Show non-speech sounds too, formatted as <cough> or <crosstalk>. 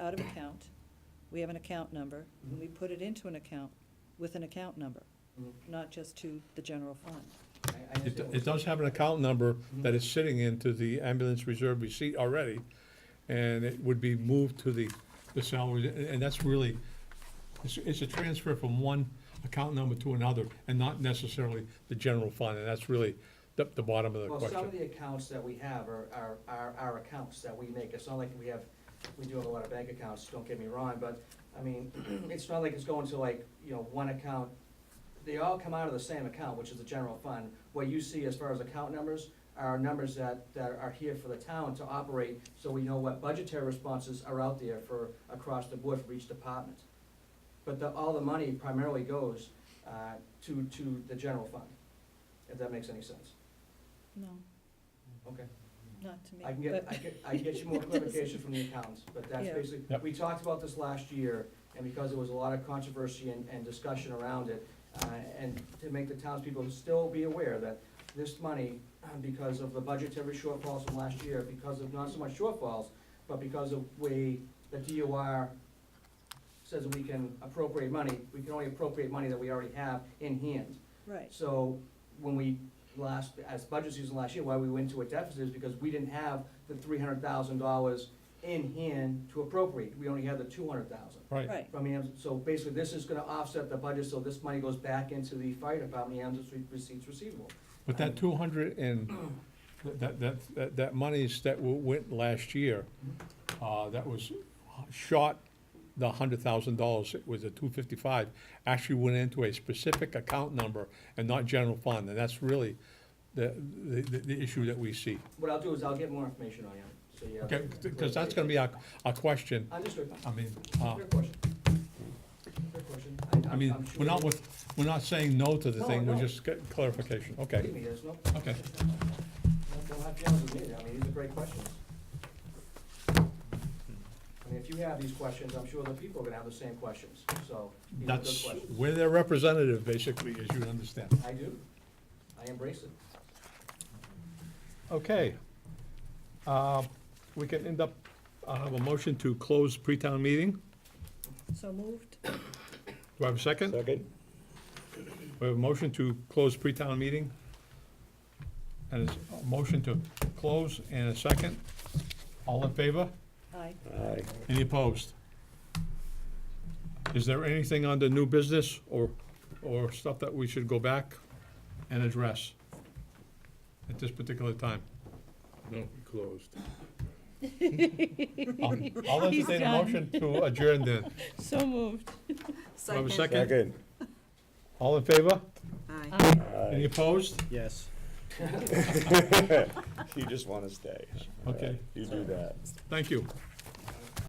out of account, we have an account number, and we put it into an account with an account number, Mhm. not just to the general fund. I- I It, understand. it does have an account number that is sitting into the ambulance reserve receipt already, and it would be moved to the, the salary, and, and that's really, it's, it's a transfer from one account number to another, and not necessarily the general fund, and that's really the, the bottom of the Well, some of question. the accounts that we have are, are, are our accounts that we make, it's not like we have, we do have a lot of bank accounts, don't get me wrong, but, I mean, <clears throat> it's not like it's going to like, you know, one account, they all come out of the same account, which is the general fund. What you see as far as account numbers are numbers that, that are here for the town to operate, so we know what budgetary responses are out there for, across the board for each department. But the, all the money primarily goes, uh, to, to the general fund, if that makes any sense, No, okay? not to me. I can get, but- I can, I can get you <laughs> more It doesn't- clarification from the accountants, but that's Yeah. basically, Yep. we talked about this last year, and because there was a lot of controversy and, and discussion around it, uh, and to make the townspeople still be aware that this money, uh, because of the budgetary shortfalls from last year, because of not so much shortfalls, but because of way the DOR says we can appropriate money, we can only appropriate money that we already have in hand. Right, So when we last, as budget season last year, why we went to a deficit is because we didn't have the three hundred thousand dollars in hand to appropriate. We only had the two hundred thousand. Right, right, From the, ambulance. so basically, this is gonna offset the budget, so this money goes back into the fire department, the ambulance re- receipts receivable. but that two hundred and, that, that, that, that monies that w- went last year, uh, that was short the hundred thousand dollars, it was a two fifty-five, actually went into a specific account number and not general fund, and that's really the, the, the- the issue that we see. What I'll do is I'll get more information on you, so yeah. Okay, because that's gonna be our, our question, Understood. I mean, uh, Fair question. Fair question. I'm- I mean, I'm sure- we're not with, we're not saying no to the No, thing, we're no. just getting clarification, okay, Believe me, there's no. okay. Don't have to yell at me, I mean, these are great questions. I mean, if you have these questions, I'm sure the people are gonna have the same questions, so. these are good That's, questions. we're their representative, basically, as you understand. I do, I embrace it. Okay. Uh, We can end up, I'll have a motion to close pre-town meeting. so moved, Do I have a second? Second? We have a motion to close pre-town meeting. And it's a motion to close and a second. All in favor? aye. Aye. Any opposed? Is there anything under new business or, or stuff that we should go back and address at this particular time? No, we closed. I'll Um, I'll entertain a motion to adjourn then. So moved. Do I have a second? Second? All in favor? Any Aye. opposed? Yes. <laughs> You just wanna stay. Okay, You do that. thank you.